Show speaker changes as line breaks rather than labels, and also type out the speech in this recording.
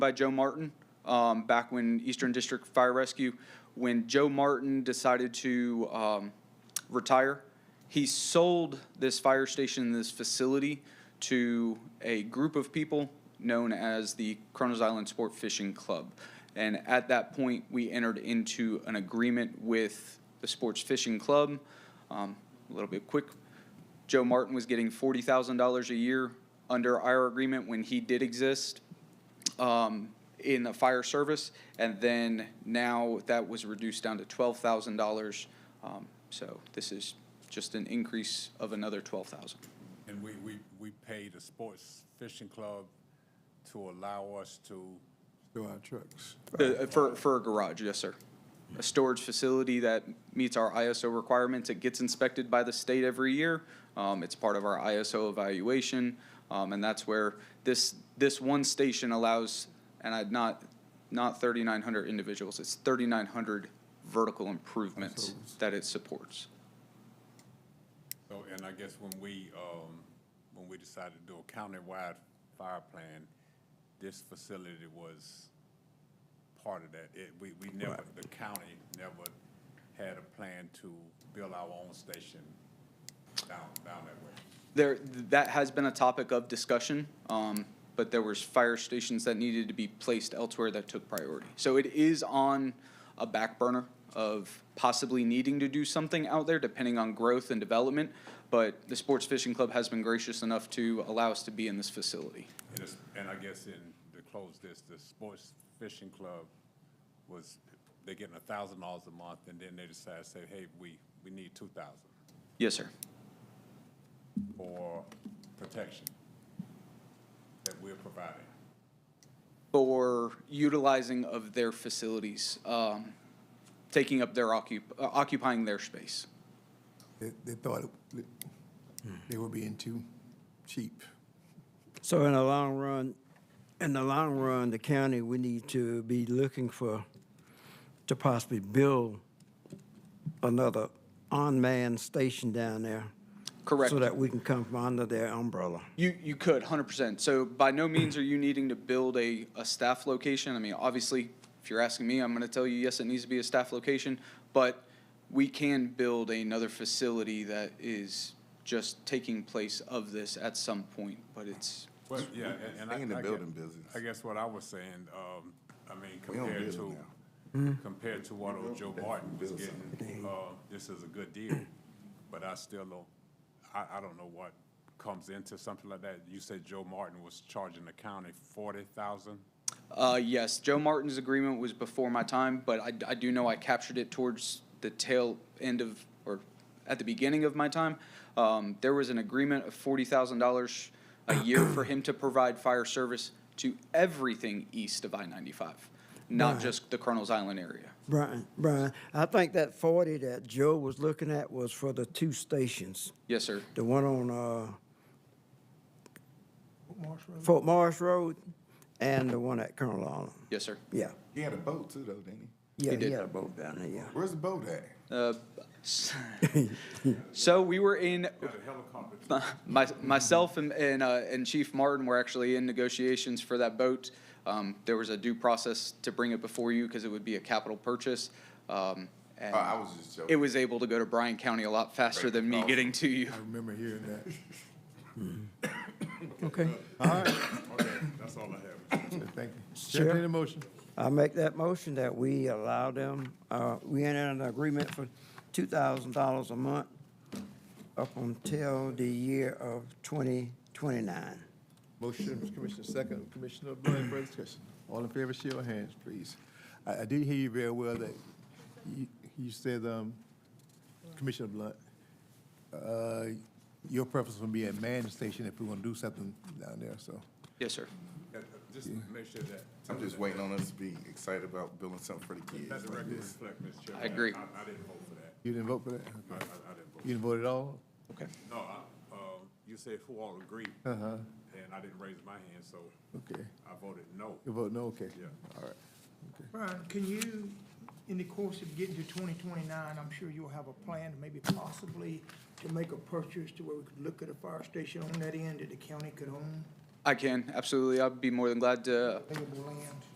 by Joe Martin um, back when Eastern District Fire Rescue, when Joe Martin decided to um, retire, he sold this fire station, this facility, to a group of people known as the Kronos Island Sport Fishing Club. And at that point, we entered into an agreement with the Sports Fishing Club. Um, a little bit quick Joe Martin was getting forty thousand dollars a year under our agreement when he did exist um, in the fire service, and then now that was reduced down to twelve thousand dollars. Um, So this is just an increase of another twelve thousand.
And we, we, we pay the sports fishing club to allow us to,
to our trucks.
The, uh, for, for a garage, yes, sir. A storage facility that meets our ISO requirements. It gets inspected by the state every year. Um, it's part of our ISO evaluation. Um, and that's where this, this one station allows, and I'd not, not thirty-nine hundred individuals, it's thirty-nine hundred vertical improvements that it supports.
so, and I guess when we, um, when we decided to do a countywide fire plan, this facility was part of that. It, we, we never, the county never had a plan to build our own station down, down that way.
There, that has been a topic of discussion, um, but there was fire stations that needed to be placed elsewhere that took priority. So it is on a back burner of possibly needing to do something out there, depending on growth and development. But the Sports Fishing Club has been gracious enough to allow us to be in this facility.
And it's, and I guess in, to close this, the sports fishing club was, they're getting a thousand dollars a month, and then they decide, say, hey, we, we need two thousand
Yes, sir.
for protection that we're providing.
for utilizing of their facilities, um, taking up their occup, uh, occupying their space.
They, they thought it- they were being too cheap.
So in the long run, in the long run, the county, we need to be looking for, to possibly build another unmanned station down there.
Correct.
So that we can come from under their umbrella.
You, you could, hundred percent. So by no means are you needing to build a, a staff location. I mean, obviously, if you're asking me, I'm gonna tell you, yes, it needs to be a staff location, but we can build another facility that is just taking place of this at some point, but it's,
Well, yeah, and- and I.
Stay in the
I gue-
building business.
I guess what I was saying, um, I mean,
We don't
compared
build
to, compared to what old Joe Martin was getting, uh, this is a good deal. But I still don't, I, I don't know what comes into something like that. You said Joe Martin was charging the county forty thousand?
Uh, yes, Joe Martin's agreement was before my time, but I, I do know I captured it towards the tail end of, or at the beginning of my time. Um, there was an agreement of forty thousand dollars a year for him to provide fire service to everything east of I ninety-five, not just the Colonel's Island area.
Brian, Brian, I think that forty that Joe was looking at was for the two stations,
Yes, sir.
the one on, uh, Fort Marsh Road and the one at Colonel Allen.
Yes, sir.
Yeah,
He had a boat too, though, didn't he?
yeah,
did.
he had a boat down there, yeah.
Where's the boat at?
Uh, s- so we were in my, myself and and, uh, and Chief Martin were actually in negotiations for that boat. Um, there was a due process to bring it before you because it would be a capital purchase. Um, and
Oh, I was just joking.
it was able to go to Bryan County a lot faster than me getting to you.
I remember hearing that.
Okay.
Okay, that's all I have. Uh,
So Thank you. Chair, need a motion?
I make that motion that we allow them, uh, we enter an agreement for two thousand dollars a month up until the year of twenty twenty-nine.
Motion, from Commissioner, second, Commissioner Blunt, further discussion. All in favor, show your hands, please. I, I did hear you very well that you, you said, um, Commissioner Blunt, uh, your preference would be a man station if we want to do something down there, so.
Yes, sir.
Yeah, uh, Just make sure that.
I'm just waiting on us to be excited about building something for the kids.
Let the
like
record
this.
reflect, Mr. Chairman.
I agree.
I, I didn't vote for that.
You didn't vote for that?
I, I, I didn't vote.
You didn't vote at all?
Okay.
No, I, um, you said who all agreed, and
Uh-huh,
I didn't raise my hand, so
okay.
I voted no.
You vote no, okay?
Yeah.
All right.
Brian, can you, in the course of getting to twenty twenty-nine, I'm sure you'll have a plan, maybe possibly to make a purchase to where we could look at a fire station on that end that the county could own?
I can, absolutely. I'd be more than glad uh, to
available land?